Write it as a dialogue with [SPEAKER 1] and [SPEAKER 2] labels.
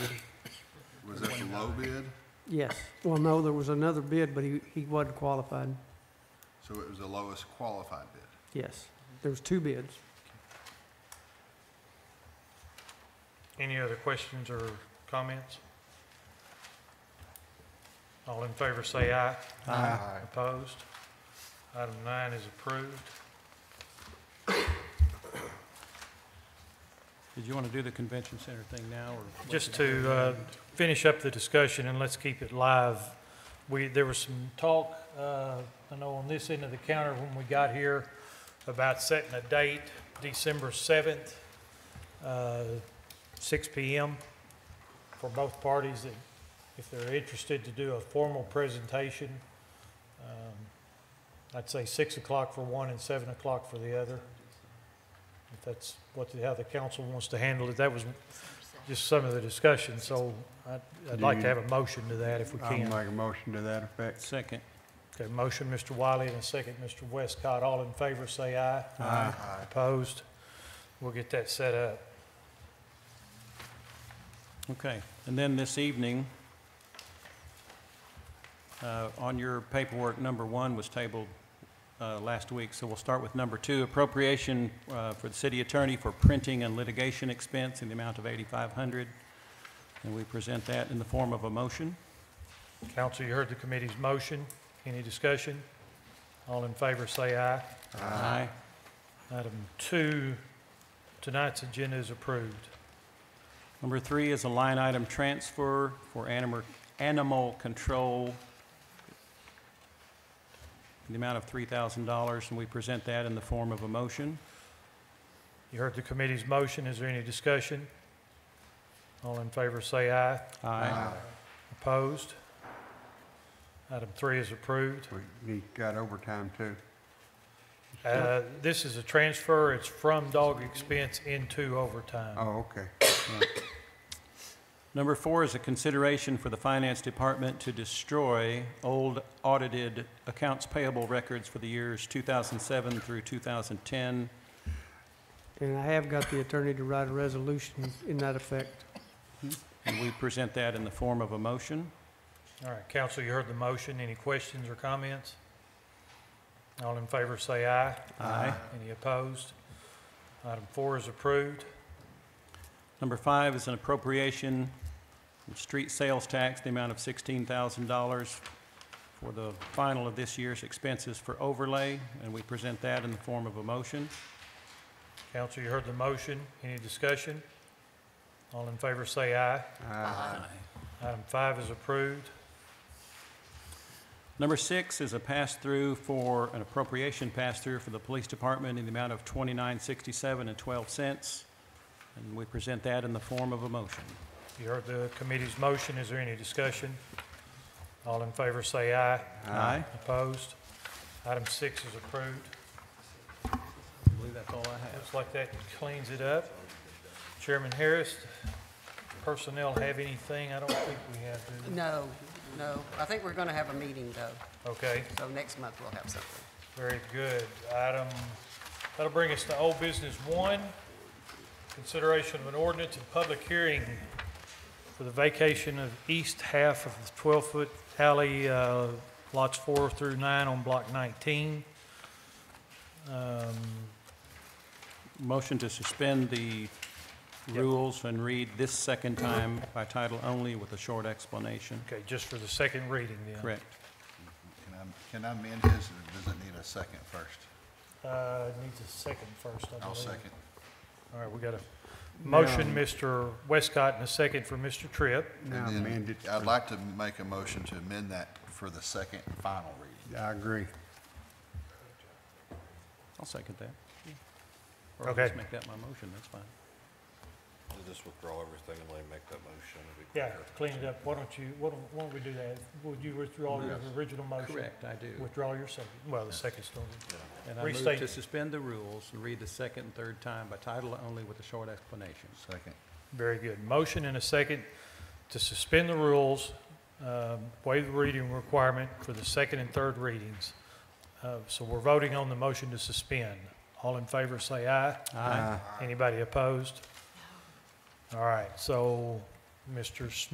[SPEAKER 1] low bid,
[SPEAKER 2] Yes. Well, no, there was another bid, but he, he wasn't qualified.
[SPEAKER 1] so it was the lowest qualified bid.
[SPEAKER 2] Yes. There was two bids.
[SPEAKER 3] Any other questions or comments? All in favor say aye.
[SPEAKER 1] Aye.
[SPEAKER 3] Opposed? Item nine is approved.
[SPEAKER 4] Did you want to do the convention center thing now, or? wait
[SPEAKER 3] Just
[SPEAKER 4] till
[SPEAKER 3] to,
[SPEAKER 4] the
[SPEAKER 3] uh,
[SPEAKER 4] end?
[SPEAKER 3] Finish up the discussion and let's keep it live. We, there was some talk, uh, I know on this end of the counter when we got here about setting a date, December seventh, uh, six P M. For both parties that, if they're interested to do a formal presentation. Um, I'd say six o'clock for one and seven o'clock for the other. If that's what, the- how the council wants to handle it. That was just some of the discussion, so I'd, I'd
[SPEAKER 5] Do
[SPEAKER 3] like to
[SPEAKER 5] you-
[SPEAKER 3] have a motion to that if we
[SPEAKER 5] I'll
[SPEAKER 3] can.
[SPEAKER 5] make a motion to that effect.
[SPEAKER 4] Second.
[SPEAKER 3] Okay, motion, Mr. Wiley, and a second, Mr. Westcott. All in favor, say aye.
[SPEAKER 5] Aye.
[SPEAKER 3] Opposed? We'll get that set up.
[SPEAKER 4] Okay, and then this evening, uh, on your paperwork, number one was tabled uh, last week, so we'll start with number two, appropriation uh, for the city attorney for printing and litigation expense in the amount of 8,500. And we present that in the form of a motion.
[SPEAKER 3] Council, you heard the committee's motion. Any discussion? All in favor, say aye.
[SPEAKER 4] Aye.
[SPEAKER 3] Item two, tonight's agenda is approved.
[SPEAKER 4] Number three is a line item transfer for animal, animal control in the amount of $3,000, and we present that in the form of a motion.
[SPEAKER 3] You heard the committee's motion. Is there any discussion? All in favor, say aye. Opposed? Item three is approved.
[SPEAKER 5] We, we got overtime too.
[SPEAKER 3] Uh, This is a transfer, it's from dog expense into overtime.
[SPEAKER 5] Oh, okay.
[SPEAKER 4] Number four is a consideration for the Finance Department to destroy old audited accounts payable records for the years 2007 through 2010.
[SPEAKER 2] And I have got the attorney to write a resolution in that effect.
[SPEAKER 4] And we present that in the form of a motion.
[SPEAKER 3] All right, council, you heard the motion, any questions or comments? All in favor say aye.
[SPEAKER 4] Aye.
[SPEAKER 3] Any opposed? Item four is approved.
[SPEAKER 4] Number five is an appropriation of street sales tax, the amount of $16,000 for the final of this year's expenses for overlay, and we present that in the form of a motion.
[SPEAKER 3] Council, you heard the motion, any discussion? All in favor say aye.
[SPEAKER 5] Aye.
[SPEAKER 3] Item five is approved.
[SPEAKER 4] Number six is a pass-through for, an appropriation pass-through for the police department in the amount of twenty-nine sixty-seven and twelve cents. And we present that in the form of a motion.
[SPEAKER 3] You heard the committee's motion, is there any discussion? All in favor say aye.
[SPEAKER 4] Aye.
[SPEAKER 3] Opposed? Item six is approved.
[SPEAKER 4] I believe that's all I have.
[SPEAKER 3] Looks like that cleans it up. Chairman Harris, personnel have anything? I don't think we have, do
[SPEAKER 6] No, no. I think we're going to have a meeting, though,
[SPEAKER 3] we? Okay,
[SPEAKER 6] so next month we'll have something.
[SPEAKER 3] very good. Item, that'll bring us to old business one, consideration of an ordinance and public hearing for the vacation of east half of the 12-foot alley, uh, lots four through nine on block 19. Um,
[SPEAKER 4] Motion to suspend the rules and read this second time by title only with a short explanation.
[SPEAKER 3] Okay, just for the second reading then.
[SPEAKER 4] Correct.
[SPEAKER 1] Can I, can I amend his, or does it need a second first?
[SPEAKER 3] Uh, it needs a second first, I believe.
[SPEAKER 1] I'll second.
[SPEAKER 3] All right, we got a motion, Mr. Westcott, and a second for Mr. Tripp.
[SPEAKER 1] And
[SPEAKER 5] Now
[SPEAKER 1] then
[SPEAKER 5] amend it.
[SPEAKER 1] I'd like to make a motion to amend that for the second and final reading.
[SPEAKER 5] I agree.
[SPEAKER 4] I'll second that. Or
[SPEAKER 3] Okay.
[SPEAKER 4] just make that my motion, that's fine.
[SPEAKER 7] I'll just withdraw everything and let him make that motion. It'll be
[SPEAKER 3] Yeah,
[SPEAKER 7] quicker.
[SPEAKER 3] clean it up. Why don't you, why don't, why don't we do that? Would you withdraw your original motion?
[SPEAKER 4] Correct, I do.
[SPEAKER 3] Withdraw your second. Well, the second's still,
[SPEAKER 4] And I move
[SPEAKER 3] Restate.
[SPEAKER 4] to suspend the rules and read the second and third time by title only with a short explanation.
[SPEAKER 1] Second.
[SPEAKER 3] very good. Motion and a second to suspend the rules, um, waive the reading requirement for the second and third readings. Uh, So we're voting on the motion to suspend. All in favor, say aye.
[SPEAKER 4] Aye.
[SPEAKER 3] Anybody opposed? All right, so Mr. Smith